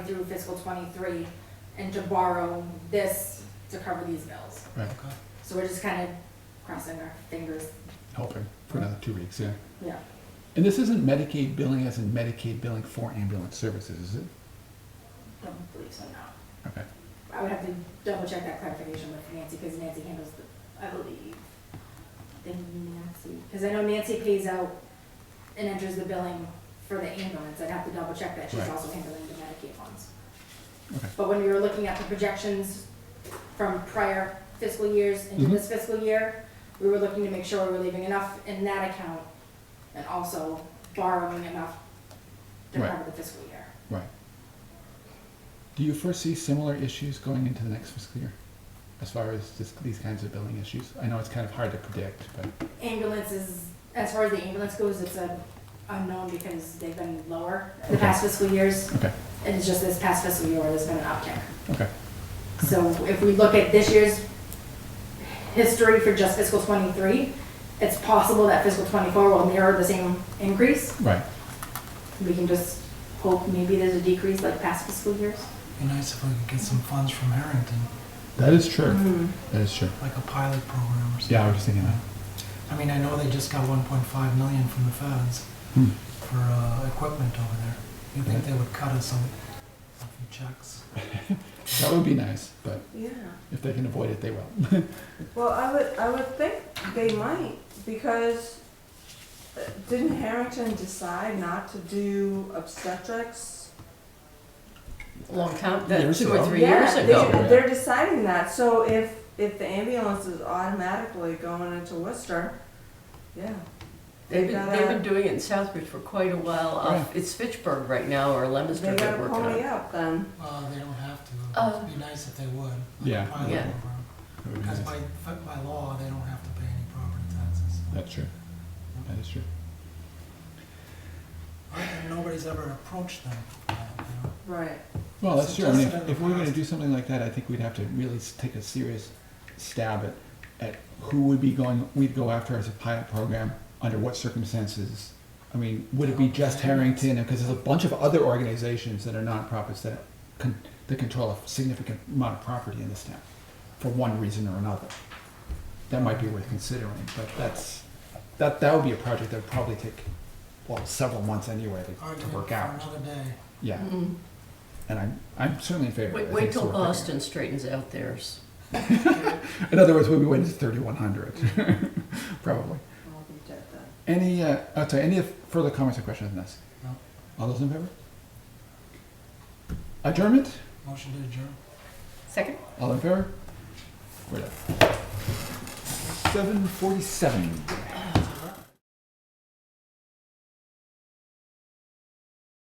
through fiscal twenty-three and to borrow this to cover these bills. Right. So we're just kind of crossing our fingers, Hoping for another two weeks, yeah. yeah. And this isn't Medicaid billing as in Medicaid billing for ambulance services, is it? Don't believe so, no. Okay. I would have to double check that clarification with Nancy, because Nancy handles the, I believe. I think Nancy, because I know Nancy pays out and enters the billing for the ambulance, I'd have to double check that she's Right. also handling the Medicaid ones. Okay. But when we were looking at the projections from prior fiscal years into Mhm. this fiscal year, we were looking to make sure we were leaving enough in that account and also borrowing enough to Right. cover the fiscal year. Right. Do you foresee similar issues going into the next fiscal year? As far as this, these kinds of billing issues? I know it's kind of hard to predict, but, ambulance is, as far as the ambulance goes, it's a unknown because they've been lower the Okay. past fiscal years. okay, And it's just this past fiscal year where there's been an uptick. okay, So if we look at this year's history for just fiscal twenty-three, it's possible that fiscal twenty-four will mirror the same increase. right. We can just hope maybe there's a decrease like past fiscal years. Be nice if we could get some funds from Harrington, That is true, that is true. like a pilot program or something. Yeah, I was just thinking that. I mean, I know they just got 1.5 million from the feds Hmm. for uh, equipment over there. You think they would cut us some, a few checks? That would be nice, but Yeah, if they can avoid it, they will. well, I would, I would think they might, because uh, didn't Harrington decide not to do obstetrics? long time, that Years two or ago. three Yeah, years they- ago. They're deciding that, so if, if the ambulance is automatically going into Worcester, yeah. They've been, gotta- they've been doing it in Southbridge for quite a while. Yeah. Off, it's Fitchburg right now, or They Leominster they're gotta working pony on. up then. Well, they don't have to. Oh. It'd be nice if they would. Like Yeah. A pilot Yeah. program. That would be Because nice. by, by law, they don't have to pay any property taxes. That's true, that is true. Right, and nobody's ever approached them. uh, you know. Right. Well, that's true. I mean, if, Suggested if we were going to request. do something like that, I think we'd have to really s- take a serious stab at, at who would be going, we'd go after as a pilot program, under what circumstances. I mean, would it be just Harrington? Because there's a bunch of other organizations that are nonprofits that, con- that control a significant amount of property in this town for one reason or another. That might be worth considering, but that's, that, that would be a project that would probably take, well, several months anyway to, to Argument work for out. another day. Yeah. Mm. And I'm, I'm certainly in favor. of it. Wait, I wait think it's till worth it. Boston straightens out theirs. In other words, we'll be waiting to 3100, probably. I'll be dead then. Any, uh, oh, sorry, any further comments or questions on this? No. All those in favor? Adjournment? Motion to adjourn. Second. All in favor? We're done. 747.